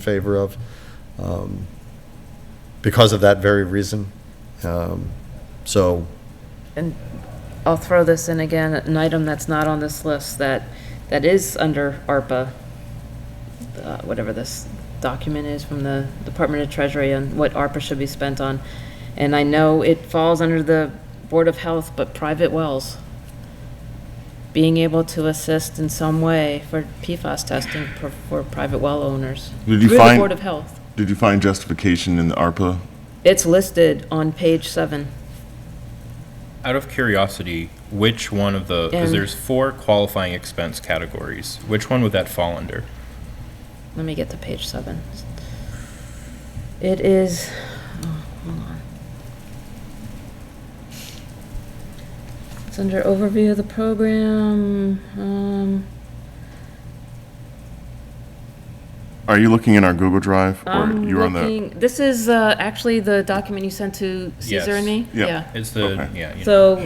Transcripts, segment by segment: favor of, um, because of that very reason. Um, So, And I'll throw this in again, an item that's not on this list that, that is under ARPA, uh, whatever this document is from the Department of Treasury and what ARPA should be spent on. And I know it falls under the Board of Health, but private wells. Being able to assist in some way for PFAS testing for, for private well owners. Did through you the find- Board of Health. Did you find justification in the ARPA? It's listed on page seven. Out of curiosity, which one of the, because Yeah. there's four qualifying expense categories, which one would that fall under? Let me get to page seven. It is, oh, hold on. It's under overview of the program, um, Are you looking in our Google Drive? or I'm you were on the? looking, this is, uh, actually the document you sent to Caesar and me? Yes. Yeah. It's the, Okay. yeah, you know, So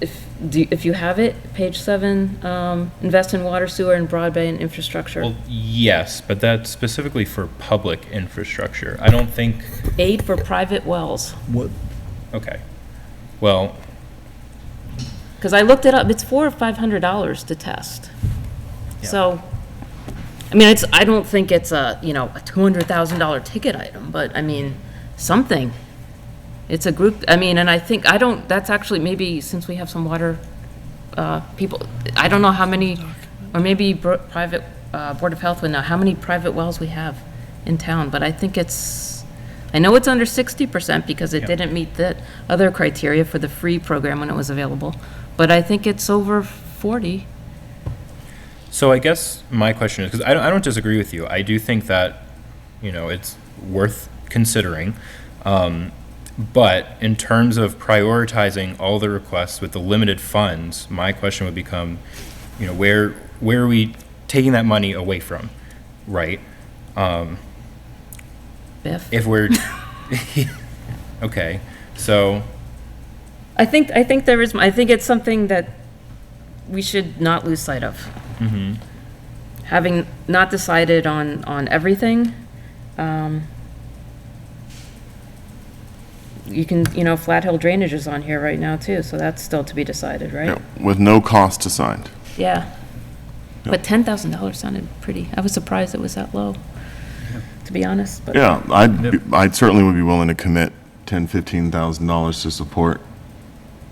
if, do, if you have it, page seven, um, invest in water, sewer, and broadband infrastructure. well, yes, but that's specifically for public infrastructure. I don't think, Aid for private wells. what, okay. Well, Because I looked it up, it's four or five hundred dollars to test. Yeah. So, I mean, it's, I don't think it's a, you know, a two hundred thousand dollar ticket item, but I mean, something. It's a group, I mean, and I think, I don't, that's actually maybe, since we have some water, uh, people, I don't know how many, or maybe bro- private, uh, Board of Health would know, how many private wells we have in town, but I think it's, I know it's under sixty percent because it Yeah. didn't meet the other criteria for the free program when it was available, but I think it's over forty. So I guess my question is because I don't, I don't disagree with you. I do think that you know it's worth considering, um, but in terms of prioritizing all the requests with the limited funds, my question would become, you know, where where are we taking that money away from, right? Um, Biff? If we're okay, so I think, I think there is, I think it's something that we should not lose sight of. mm-hmm, Having not decided on, on everything, um, you can, you know, Flat Hill Drainage is on here right now too, so that's still to be decided, right? Yeah, With no cost assigned. Yeah. But ten thousand dollars sounded pretty, I was surprised it was that low, to be honest, but. Yeah, I'd, be- I'd certainly would be willing to commit ten, fifteen thousand dollars to support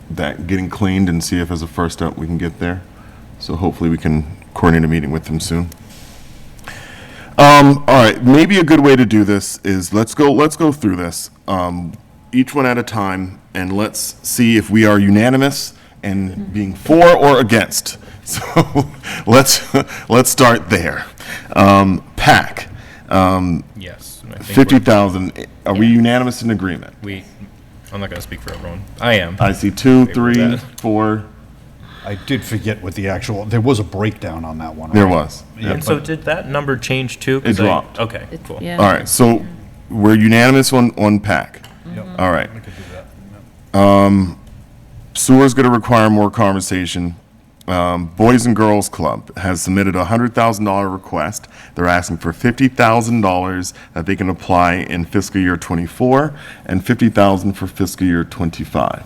that getting cleaned and see if as a first step we can get there. So hopefully we can coordinate a meeting with them soon. Um, all right, maybe a good way to do this is let's go, let's go through this, um, each one at a time, and let's see if we are unanimous in being for or against. So let's, let's start there. Um, PAC, um, yes, and I think fifty we're- thousand, are we unanimous in agreement? we. I'm not going to speak for everyone. I am. I see two, three, that. four, I did forget what the actual, there was a breakdown on that one. there right? was. and so did that number change too? 'Cause It I- dropped. Okay, cool. Yeah. All right, so we're unanimous on, on PAC. Yep. All right. Um, We could do that. Sewer's going to require more conversation. Um, Boys and Girls Club has submitted a $100,000 request. They're asking for $50,000 that they can apply in fiscal year '24 and $50,000 for fiscal year '25.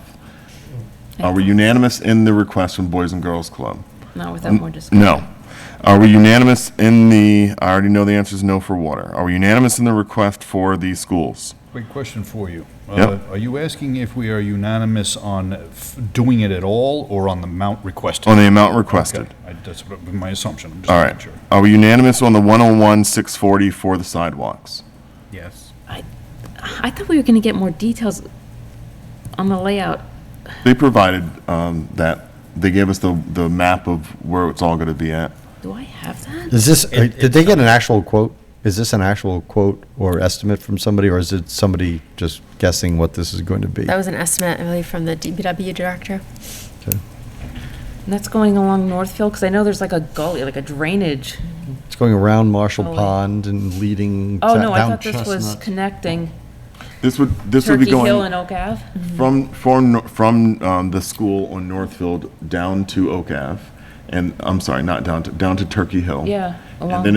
Are we unanimous in the request from Boys and Girls Club? Not without more discussion. Um, No. Are we unanimous in the, I already know the answer is no for water. Are we unanimous in the request for the schools? Quick question for you. Yep. Uh, Are you asking if we are unanimous on f- doing it at all or on the amount requested? On the amount requested? Okay, I- That's what- my assumption. I'm just All making right. sure. Are we unanimous on the 101, 640 for the sidewalks? Yes. I, I thought we were gonna get more details on the layout. They provided um, that, they gave us the, the map of where it's all going to be at. Do I have that? is this, uh, It- did they get an actual quote? Is this an actual quote or estimate from somebody, or is it somebody just guessing what this is going to be? That was an estimate, I believe, from the DPW director. Okay. And that's going along Northfield, because I know there's like a gully, like a drainage. It's going around Marshall Oh, wait. Pond and leading Oh, ta- no, I down thought this was Chestnut. connecting This would, this would be Turkey Hill and Oak going Ave. from, from, Nor- from um, the school on Northfield down to Oak Ave, and, I'm sorry, not down to, down to Turkey Hill. Yeah. Oh. And along then